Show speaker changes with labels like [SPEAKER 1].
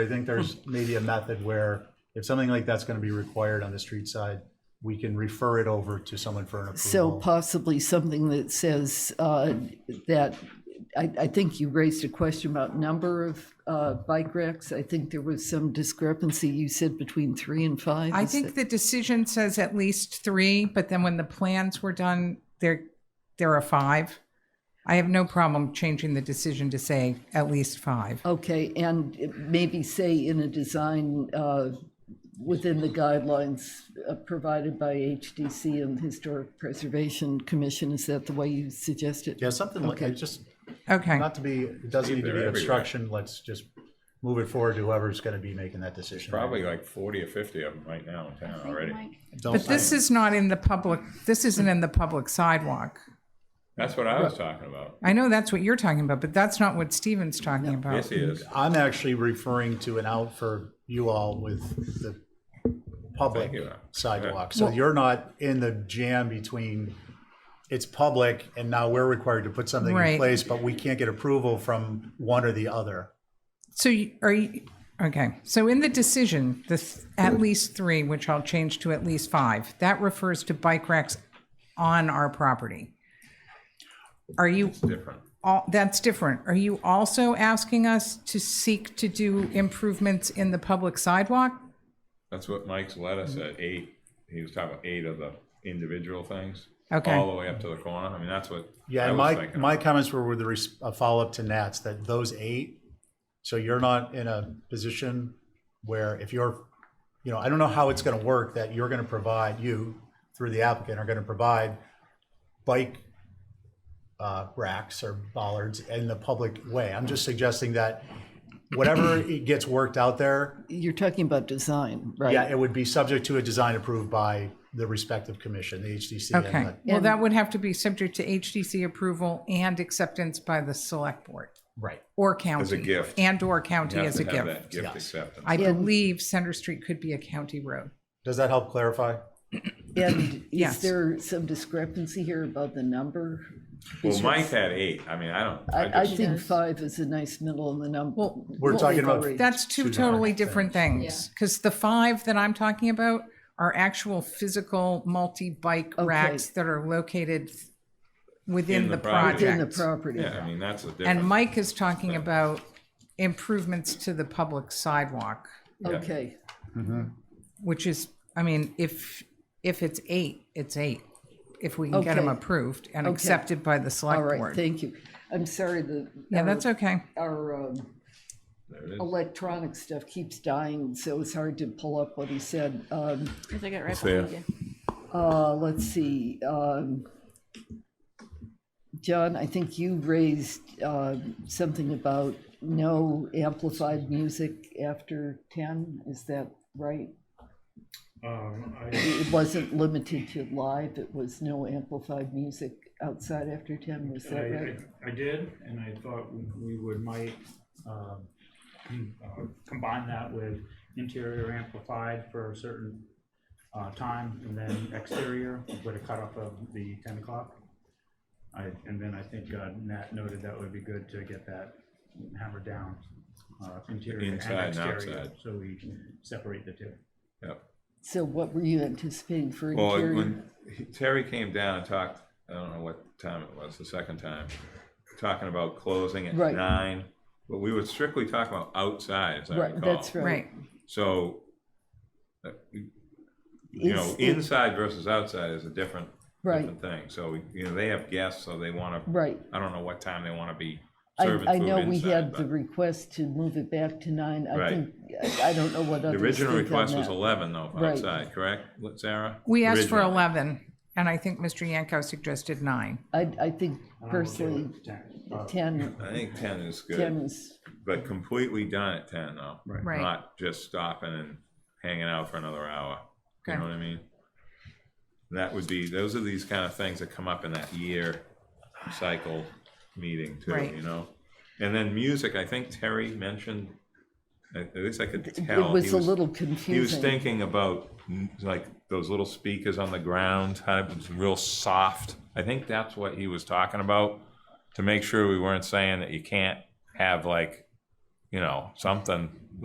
[SPEAKER 1] I think there's maybe a method where if something like that's gonna be required on the street side, we can refer it over to someone for an
[SPEAKER 2] So
[SPEAKER 3] Mm-hmm.
[SPEAKER 1] approval.
[SPEAKER 2] possibly something that says uh, that, I, I think you raised a question about number of uh, bike racks. I think there was some discrepancy, you said between three and five.
[SPEAKER 3] I
[SPEAKER 2] Is
[SPEAKER 3] think the decision says at least three, but then when the plans were done, there, there are five. I have no problem changing the decision to say at least five.
[SPEAKER 2] that- Okay, and it- maybe say in a design uh, within the guidelines uh, provided by HDC and Historic Preservation Commission, is that the way you suggest it?
[SPEAKER 1] Yeah, something like, it just,
[SPEAKER 3] Okay,
[SPEAKER 1] not to be, it doesn't need to be
[SPEAKER 4] They're everywhere.
[SPEAKER 1] obstruction, let's just move it forward to whoever's gonna be making that decision.
[SPEAKER 4] Probably like forty or fifty of them right now in town already.
[SPEAKER 1] Don't
[SPEAKER 3] but this is not in the public, this isn't in the public sidewalk.
[SPEAKER 4] That's what I was talking about.
[SPEAKER 3] I know that's what you're talking about, but that's not what Steven's talking
[SPEAKER 4] Yes,
[SPEAKER 3] about.
[SPEAKER 4] he is.
[SPEAKER 1] I'm actually referring to an out for you all with the public
[SPEAKER 4] Thank you.
[SPEAKER 1] sidewalk. So you're not in the jam between, it's public and now we're required to put something in
[SPEAKER 3] Right.
[SPEAKER 1] place, but we can't get approval from one or the other.
[SPEAKER 3] So you- are you, okay, so in the decision, the th- at least three, which I'll change to at least five, that refers to bike racks on our property. Are you
[SPEAKER 4] Different.
[SPEAKER 3] all, that's different. Are you also asking us to seek to do improvements in the public sidewalk?
[SPEAKER 4] That's what Mike's letter said, eight, he was talking about eight of the individual things.
[SPEAKER 3] Okay.
[SPEAKER 4] All the way up to the corner. I mean, that's what
[SPEAKER 1] Yeah,
[SPEAKER 4] I
[SPEAKER 1] and my,
[SPEAKER 4] was thinking.
[SPEAKER 1] my comments were with the res- a follow-up to Nat's, that those eight, so you're not in a position where if you're, you know, I don't know how it's gonna work, that you're gonna provide, you, through the applicant, are gonna provide bike uh, racks or bollards in the public way. I'm just suggesting that whatever it gets worked out there,
[SPEAKER 2] You're talking about design, right?
[SPEAKER 1] yeah, it would be subject to a design approved by the respective commission, the HDC. and
[SPEAKER 3] Okay.
[SPEAKER 1] the-
[SPEAKER 3] Well, that would have to be subject to HDC approval and acceptance by the select board
[SPEAKER 1] Right.
[SPEAKER 3] or county.
[SPEAKER 4] As a gift.
[SPEAKER 3] And or county
[SPEAKER 4] You have
[SPEAKER 3] as a
[SPEAKER 4] to have that
[SPEAKER 3] gift.
[SPEAKER 4] Gift
[SPEAKER 1] Yes.
[SPEAKER 4] acceptance.
[SPEAKER 3] I believe Center Street could be a county road.
[SPEAKER 1] Does that help clarify?
[SPEAKER 2] And is
[SPEAKER 3] Yes.
[SPEAKER 2] there some discrepancy here about the number?
[SPEAKER 4] Well, Mike had eight. I mean, I don't,
[SPEAKER 2] I,
[SPEAKER 4] I
[SPEAKER 2] I
[SPEAKER 4] just,
[SPEAKER 2] think five is a nice middle in the number.
[SPEAKER 3] Well,
[SPEAKER 1] We're talking about
[SPEAKER 3] That's two totally different things, because the five that I'm talking about are actual physical multi-bike racks that are located within
[SPEAKER 4] In the
[SPEAKER 3] the
[SPEAKER 4] property.
[SPEAKER 2] In the
[SPEAKER 3] project.
[SPEAKER 2] property.
[SPEAKER 4] yeah, I mean, that's the
[SPEAKER 3] And
[SPEAKER 4] difference.
[SPEAKER 3] Mike is talking about improvements to the public sidewalk,
[SPEAKER 2] Okay,
[SPEAKER 3] which is, I mean, if, if it's eight, it's eight. If we can get them
[SPEAKER 2] Okay.
[SPEAKER 3] approved and accepted by the
[SPEAKER 2] all
[SPEAKER 3] select
[SPEAKER 2] right,
[SPEAKER 3] board.
[SPEAKER 2] thank you. I'm sorry, the,
[SPEAKER 3] Yeah, that's okay.
[SPEAKER 2] our um,
[SPEAKER 4] There it is.
[SPEAKER 2] electronic stuff keeps dying, so it's hard to pull up what he said. Um,
[SPEAKER 5] I think it right
[SPEAKER 4] Fair.
[SPEAKER 5] behind you.
[SPEAKER 2] Uh, let's see, um, John, I think you raised, uh, something about no amplified music after ten, is that right?
[SPEAKER 6] Um, I,
[SPEAKER 2] It wasn't limited to live, it was no amplified music outside after ten, was
[SPEAKER 6] I,
[SPEAKER 2] that right?
[SPEAKER 6] I- I did, and I thought we- we would might, um, com- uh, combine that with interior amplified for a certain, uh, time, and then exterior with a cutoff of the ten o'clock. I, and then I think uh, Nat noted that would be good to get that hammered down, uh, interior and
[SPEAKER 4] Inside and
[SPEAKER 6] exterior,
[SPEAKER 4] outside.
[SPEAKER 6] so we separate the two.
[SPEAKER 4] Yep.
[SPEAKER 2] So what were you anticipating for
[SPEAKER 4] Well,
[SPEAKER 2] interior?
[SPEAKER 4] when he- Terry came down and talked, I don't know what time it was, the second time, talking about closing at
[SPEAKER 2] Right.
[SPEAKER 4] nine, but we were strictly talking about outside, as I
[SPEAKER 2] Right,
[SPEAKER 4] recall.
[SPEAKER 2] that's right.
[SPEAKER 3] Right.
[SPEAKER 4] So, uh, you know,
[SPEAKER 2] It's- it-
[SPEAKER 4] inside versus outside is a different,
[SPEAKER 2] Right.
[SPEAKER 4] different thing. So, you know, they have guests, so they want to,
[SPEAKER 2] Right.
[SPEAKER 4] I don't know what time they want to be
[SPEAKER 2] I,
[SPEAKER 4] serving
[SPEAKER 2] I
[SPEAKER 4] food
[SPEAKER 2] know we
[SPEAKER 4] inside,
[SPEAKER 2] had the
[SPEAKER 4] but
[SPEAKER 2] request to move it back to nine, I
[SPEAKER 4] Right.
[SPEAKER 2] think, I- I don't know what
[SPEAKER 4] The
[SPEAKER 2] others think
[SPEAKER 4] original
[SPEAKER 2] on
[SPEAKER 4] request was
[SPEAKER 2] that.
[SPEAKER 4] eleven though, for
[SPEAKER 2] Right.
[SPEAKER 4] outside, correct, Sarah?
[SPEAKER 3] We asked for
[SPEAKER 4] Originally.
[SPEAKER 3] 11, and I think Mr. Yanko suggested nine.
[SPEAKER 2] I, I think
[SPEAKER 6] And I'm okay
[SPEAKER 2] personally,
[SPEAKER 6] with 10, uh,
[SPEAKER 2] ten,
[SPEAKER 4] I think ten is good.
[SPEAKER 2] ten is,
[SPEAKER 4] But completely done at ten though.
[SPEAKER 6] Right.
[SPEAKER 3] Right.
[SPEAKER 4] Not just stopping and hanging out for another hour. You know
[SPEAKER 3] Okay.
[SPEAKER 4] what I mean? That would be, those are these kind of things that come up in that year cycle meeting too,
[SPEAKER 3] Right.
[SPEAKER 4] you know? And then music, I think Terry mentioned, at at least I could
[SPEAKER 2] it
[SPEAKER 4] tell.
[SPEAKER 2] was
[SPEAKER 4] he
[SPEAKER 2] a little
[SPEAKER 4] He was
[SPEAKER 2] confusing.
[SPEAKER 4] thinking about mm, like those little speakers on the ground, type of real soft. I think that's what he was talking about to make sure we weren't saying that you can't have like, you know, something